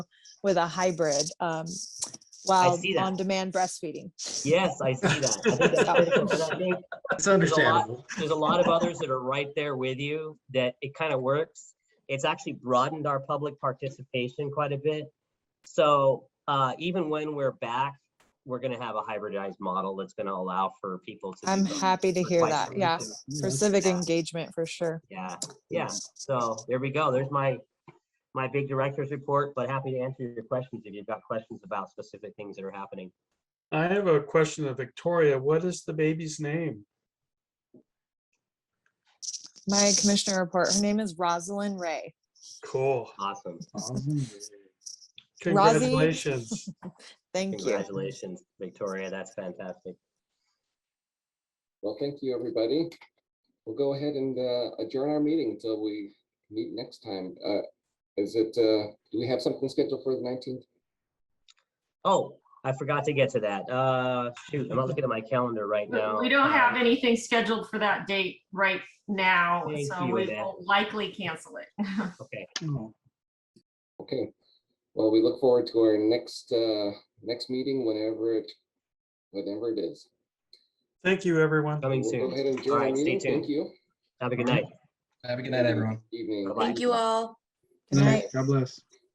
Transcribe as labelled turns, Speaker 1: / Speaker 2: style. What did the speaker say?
Speaker 1: with a hybrid, um,
Speaker 2: I
Speaker 1: while
Speaker 2: see that.
Speaker 1: on-demand breastfeeding.
Speaker 2: Yes, I see that. I think that's critical, 'cause I think
Speaker 3: That's
Speaker 2: a lot-
Speaker 3: understandable.
Speaker 2: there's a lot of others that are right there with you that it kind of works. It's actually broadened our public participation quite a bit. So uh, even when we're back, we're going to have a hybridized model that's going to allow for people to.
Speaker 1: I'm
Speaker 2: do both
Speaker 1: happy to
Speaker 2: for
Speaker 1: hear
Speaker 2: quite
Speaker 1: that,
Speaker 2: some
Speaker 1: yeah,
Speaker 2: reason.
Speaker 1: for civic engagement, for sure.
Speaker 2: Yeah, yeah. So there we go. There's my my big director's report, but happy to answer your questions if you've got questions about specific things that are happening.
Speaker 4: I have a question of Victoria. What is the baby's name?
Speaker 1: My commissioner report, her name is Rosalind Ray.
Speaker 4: Cool.
Speaker 2: Awesome.
Speaker 4: Congratulations.
Speaker 1: Thank you.
Speaker 2: Congratulations, Victoria. That's fantastic.
Speaker 5: Well, thank you, everybody. We'll go ahead and uh, adjourn our meeting until we meet next time. Uh, Is it, uh, do we have something scheduled for the nineteenth?
Speaker 2: Oh, I forgot to get to that. Uh, shoot, I'm not looking at my calendar right now. Um,
Speaker 6: We don't have anything scheduled for that date right now,
Speaker 2: Thank
Speaker 6: so
Speaker 2: you,
Speaker 6: we
Speaker 2: Annette.
Speaker 6: will likely cancel it.
Speaker 2: Okay,
Speaker 5: Okay, well, we look forward to our next, uh, next meeting whenever it, whenever it is.
Speaker 4: Thank you, everyone.
Speaker 2: coming
Speaker 5: We'll go ahead
Speaker 2: soon.
Speaker 5: and adjourn
Speaker 2: All
Speaker 5: our
Speaker 2: right, stay
Speaker 5: meeting.
Speaker 2: tuned.
Speaker 5: Thank you.
Speaker 2: Have a good night.
Speaker 3: Have a good night, everyone.
Speaker 5: Evening.
Speaker 2: Bye-bye.
Speaker 7: Thank you all.
Speaker 1: Good night.
Speaker 3: God bless.